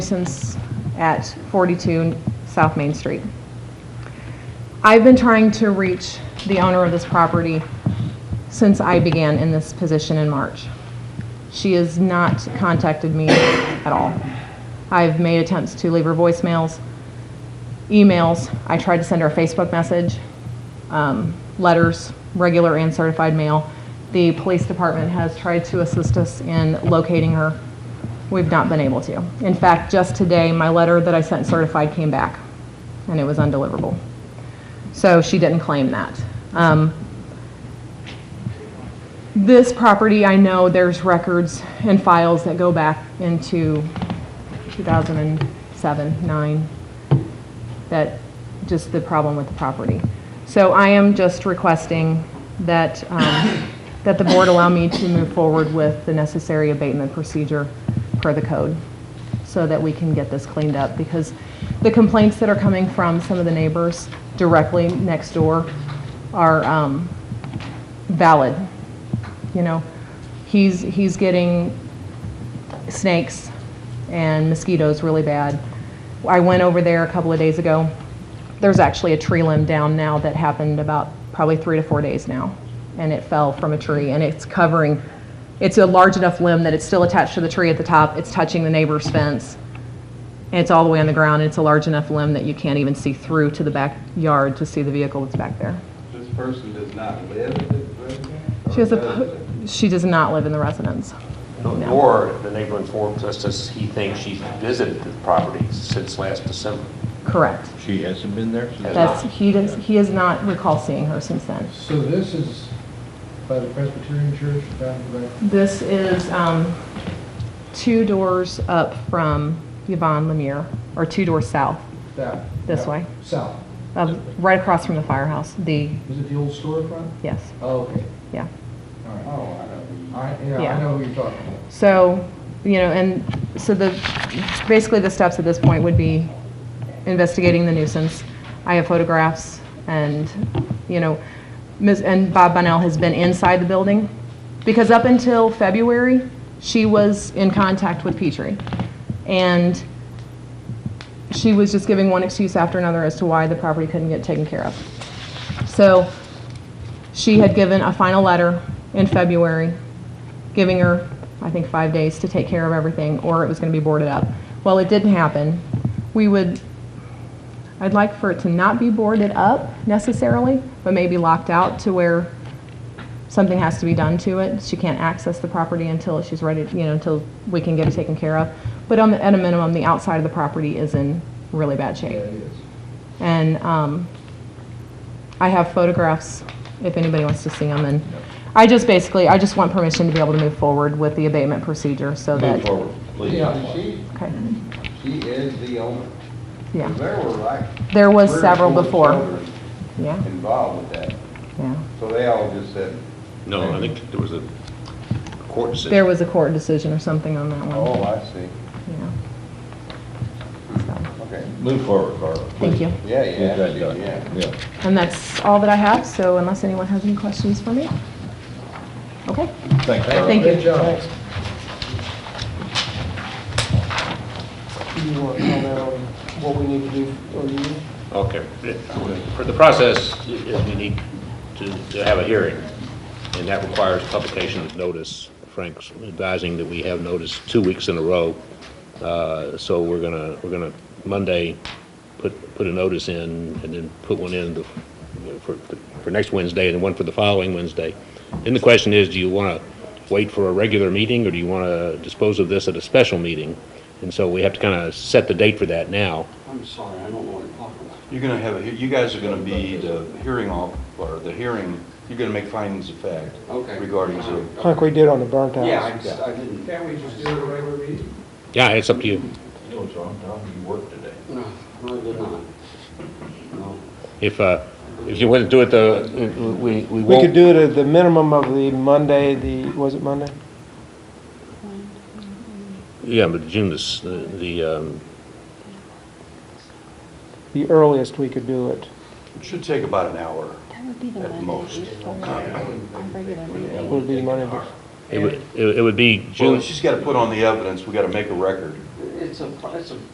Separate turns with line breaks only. nuisance at 42 South Main Street. I've been trying to reach the owner of this property since I began in this position in March. She has not contacted me at all. I've made attempts to leave her voicemails, emails. I tried to send her a Facebook message, um, letters, regular and certified mail. The police department has tried to assist us in locating her. We've not been able to. In fact, just today, my letter that I sent certified came back, and it was undeliverable. So she didn't claim that. Um, this property, I know there's records and files that go back into 2007, 9, that, just the problem with the property. So I am just requesting that, um, that the board allow me to move forward with the necessary abatement procedure per the code, so that we can get this cleaned up, because the complaints that are coming from some of the neighbors directly next door are um, valid. You know, he's, he's getting snakes and mosquitoes really bad. I went over there a couple of days ago. There's actually a tree limb down now that happened about probably three to four days now, and it fell from a tree, and it's covering, it's a large enough limb that it's still attached to the tree at the top, it's touching the neighbor's fence, and it's all the way on the ground, and it's a large enough limb that you can't even see through to the backyard to see the vehicle that's back there.
This person does not live in the residence? or
She has a,
does
po-
live?
she does not live in the residence. No.
Or the neighbor informs us that he thinks she's visited the property since last December.
Correct.
She hasn't been there since?
That's, he does, he has not recall seeing her since then.
So this is by the Presbyterian Church down the right?
This is um, two doors up from Yvonne Lemire, or two doors south,
that-
This
that-
way?
South.
of- right across from the firehouse, the,
Is it the old storefront?
yes,
Oh, okay.
yeah.
All right.
Oh, I don't.
All right, yeah,
Yeah.
I know who you're talking about.
So, you know, and so the, basically the steps at this point would be investigating the nuisance. I have photographs and, you know, Ms., and Bob Bunnell has been inside the building. Because up until February, she was in contact with Petrie. And she was just giving one excuse after another as to why the property couldn't get taken care of. So she had given a final letter in February, giving her, I think, five days to take care of everything, or it was going to be boarded up. Well, it didn't happen. We would, I'd like for it to not be boarded up necessarily, but maybe locked out to where something has to be done to it. She can't access the property until she's ready, you know, until we can get it taken care of. But on, the- at a minimum, the outside of the property is in really bad shape.
There it is.
And um, I have photographs if anybody wants to see them. And I just basically, I just want permission to be able to move forward with the abatement procedure so that.
Move forward,
Yeah,
please.
she,
Okay,
she is the owner.
yeah.
There were like.
There was
three or
several
four
before.
children
Yeah,
Involved with that,
yeah.
so they all just said,
No, I think there was a court decision.
There was a court decision or something on that one.
oh, I see,
Yeah. So,
okay,
Move forward, Carla.
Thank you.
yeah,
Get that
yeah,
done.
yeah.
Yeah.
And that's all that I have, so unless anyone has any questions for me? Okay,
Thanks, Carla.
thank you.
Good job.
Do you want to comment on what we need to do, or you?
Okay. For the process, i- is we need to to have a hearing, and that requires publication of notice. Frank's advising that we have notice two weeks in a row. Uh, So we're going to, we're going to Monday, put, put a notice in, and then put one in the- for, for next Wednesday, and one for the following Wednesday. Then the question is, do you want to wait for a regular meeting, or do you want to dispose of this at a special meeting? And so we have to kind of set the date for that now.
I'm sorry, I don't know what you're talking about. You're gonna have, a he- you guys are gonna be the hearing off, or the hearing, you're gonna make findings of fact
Okay.
regarding the...
Like we did on the burnt house.
Yeah, I just, I didn't,
Can't we just do it regular meeting?
Yeah, it's up to you.
You know what's wrong, Tom? You work today.
no, no, I did not. No.
If, uh, if you want to do it, the, we, we
We could
won't,
do it at the minimum of the Monday, the, was it Monday?
yeah, but June is, the- the, um,
The earliest we could do it
It should take about an hour.
That would be the
At most.
Monday before our regular meeting.
would be Monday.
it would, it would be
Well,
June,
she's gotta put on the evidence, we gotta make a record.
it's a, it's a